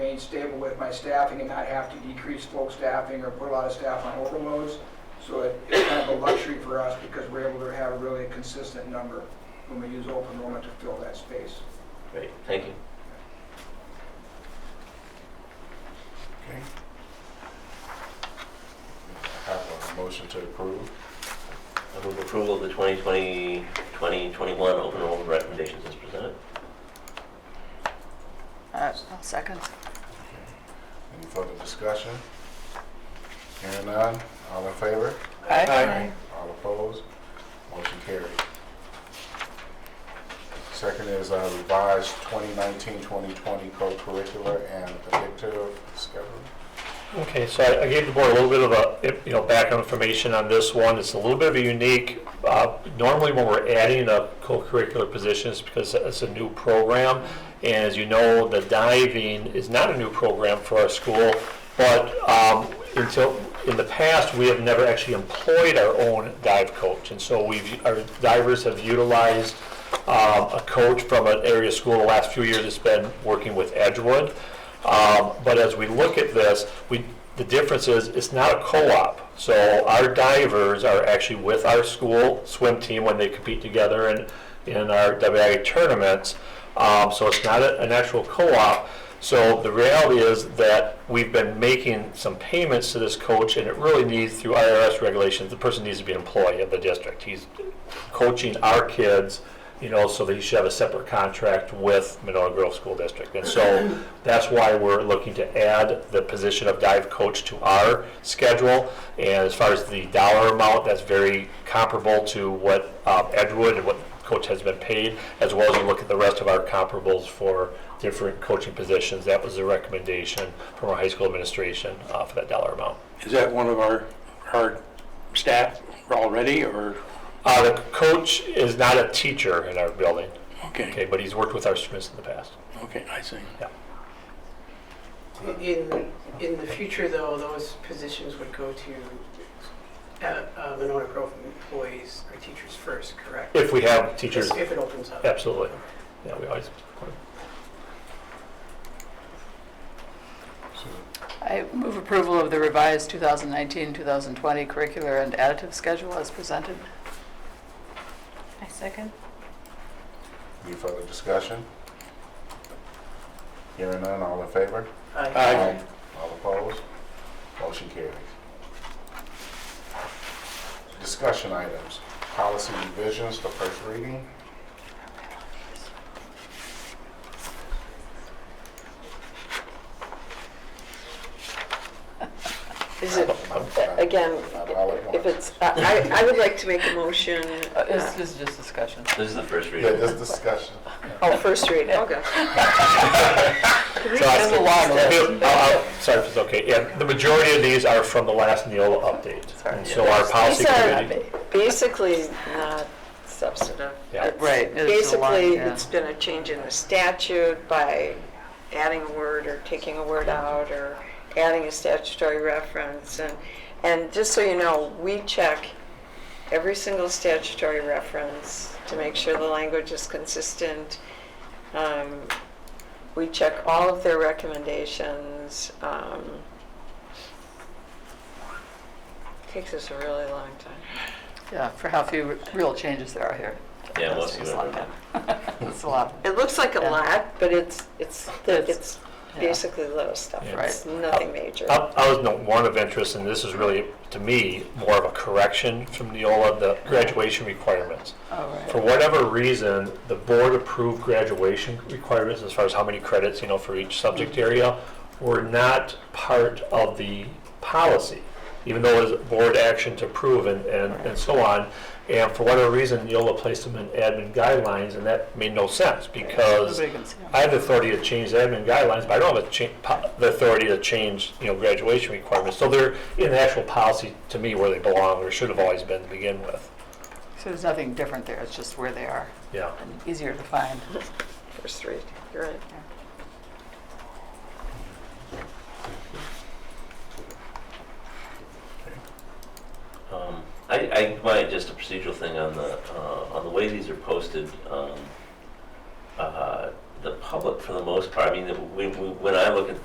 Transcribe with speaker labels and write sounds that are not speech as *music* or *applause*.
Speaker 1: remain stable with my staffing and not have to decrease folk staffing or put a lot of staff on overloads. So it- it's kind of a luxury for us because we're able to have really a consistent number when we use open enrollment to fill that space.
Speaker 2: Great, thank you.
Speaker 3: Okay. Have a motion to approve.
Speaker 2: I move approval of the 2020, 2021 open enrollment recommendations as presented.
Speaker 4: Uh, I'll second.
Speaker 3: Any further discussion? Hearing none, all in favor? All opposed? Motion carried. Second is uh, revised 2019-2020 co-curricular and predictive schedule.
Speaker 5: Okay, so I I gave the board a little bit of a, you know, background information on this one. It's a little bit of a unique, uh, normally when we're adding a co-curricular position, it's because it's a new program. And as you know, the diving is not a new program for our school, but um, until, in the past, we have never actually employed our own dive coach. And so we've, our divers have utilized um, a coach from an area school the last few years that's been working with Edgewood. Um, But as we look at this, we, the difference is, it's not a co-op. So our divers are actually with our school swim team when they compete together in, in our WIA tournaments. Um, So it's not a- an actual co-op. So the reality is that we've been making some payments to this coach, and it really needs, through IRS regulations, the person needs to be an employee of the district. He's coaching our kids, you know, so that he should have a separate contract with Monona Grove School District. And so that's why we're looking to add the position of dive coach to our schedule. And as far as the dollar amount, that's very comparable to what um, Edgewood and what coach has been paid, as well as you look at the rest of our comparables for different coaching positions. That was the recommendation from our high school administration uh, for that dollar amount.
Speaker 6: Is that one of our, our staff already, or,
Speaker 5: Uh, The coach is not a teacher in our building,
Speaker 6: okay,
Speaker 5: okay, but he's worked with our students in the past.
Speaker 6: okay, I see.
Speaker 7: In, in the future, though, those positions would go to uh, uh, Monona Grove employees or teachers first, correct?
Speaker 5: If we have teachers,
Speaker 7: If it opens up.
Speaker 5: absolutely. Yeah, we always,
Speaker 3: So,
Speaker 4: I move approval of the revised 2019-2020 curricular and additive schedule as presented.
Speaker 8: I second.
Speaker 3: Any further discussion? Hearing none, all in favor?
Speaker 7: Aye.
Speaker 6: Aye.
Speaker 3: All opposed? Motion carries. Discussion items, policy revisions, the first reading. *laughs*
Speaker 9: Is it, again,
Speaker 3: Not all at
Speaker 9: if
Speaker 3: once.
Speaker 9: it's, I, I would like to make a motion,
Speaker 4: Uh, This this is just discussion.
Speaker 2: This is the first
Speaker 3: Yeah,
Speaker 2: reading.
Speaker 3: this discussion.
Speaker 9: *laughs* oh, first reading, okay.
Speaker 5: So I-
Speaker 9: There's a lot of
Speaker 5: I'll- I'll- Sorry if it's okay. Yeah, the majority of these are from the last Neola update. And so our policy
Speaker 9: These are
Speaker 5: committee.
Speaker 9: basically not substantive.
Speaker 5: Yeah.
Speaker 9: It's-
Speaker 4: Right, it's a lot,
Speaker 9: Basically,
Speaker 4: yeah.
Speaker 9: it's been a change in the statute by adding a word or taking a word out or adding a statutory reference. And, and just so you know, we check every single statutory reference to make sure the language is consistent. Um, We check all of their recommendations. Um, Takes us a really long time.
Speaker 4: Yeah, for how few real changes there are here.
Speaker 2: Yeah, most
Speaker 4: That's just
Speaker 2: of
Speaker 4: a lot.
Speaker 2: them.
Speaker 4: *laughs* It's a lot,
Speaker 9: It looks like a
Speaker 4: Yeah.
Speaker 9: lot, but it's, it's,
Speaker 4: That's-
Speaker 9: it's
Speaker 4: yeah.
Speaker 9: basically little stuff.
Speaker 5: Yeah.
Speaker 9: It's nothing major.
Speaker 5: I I was note one of interest, and this is really, to me, more of a correction from Neola, the graduation requirements.
Speaker 4: all right.
Speaker 5: For whatever reason, the board approved graduation requirements as far as how many credits, you know, for each subject area were not part of the policy, even though it was board action to approve and, and, and so on. And for whatever reason, Neola placed them in admin guidelines, and that made no sense because
Speaker 4: Nobody can see them.
Speaker 5: I have the authority to change the admin guidelines, but I don't have the cha- po- the authority to change, you know, graduation requirements. So they're in the actual policy, to me, where they belong, or should have always been to begin with.
Speaker 4: So there's nothing different there, it's just where they are,
Speaker 5: Yeah.
Speaker 4: and easier to find.
Speaker 9: First read, you're right.
Speaker 2: Um, I, I might just a procedural thing on the, uh, on the way these are posted. um, uh, The public, for the most part, I mean, the- we- we- when I look at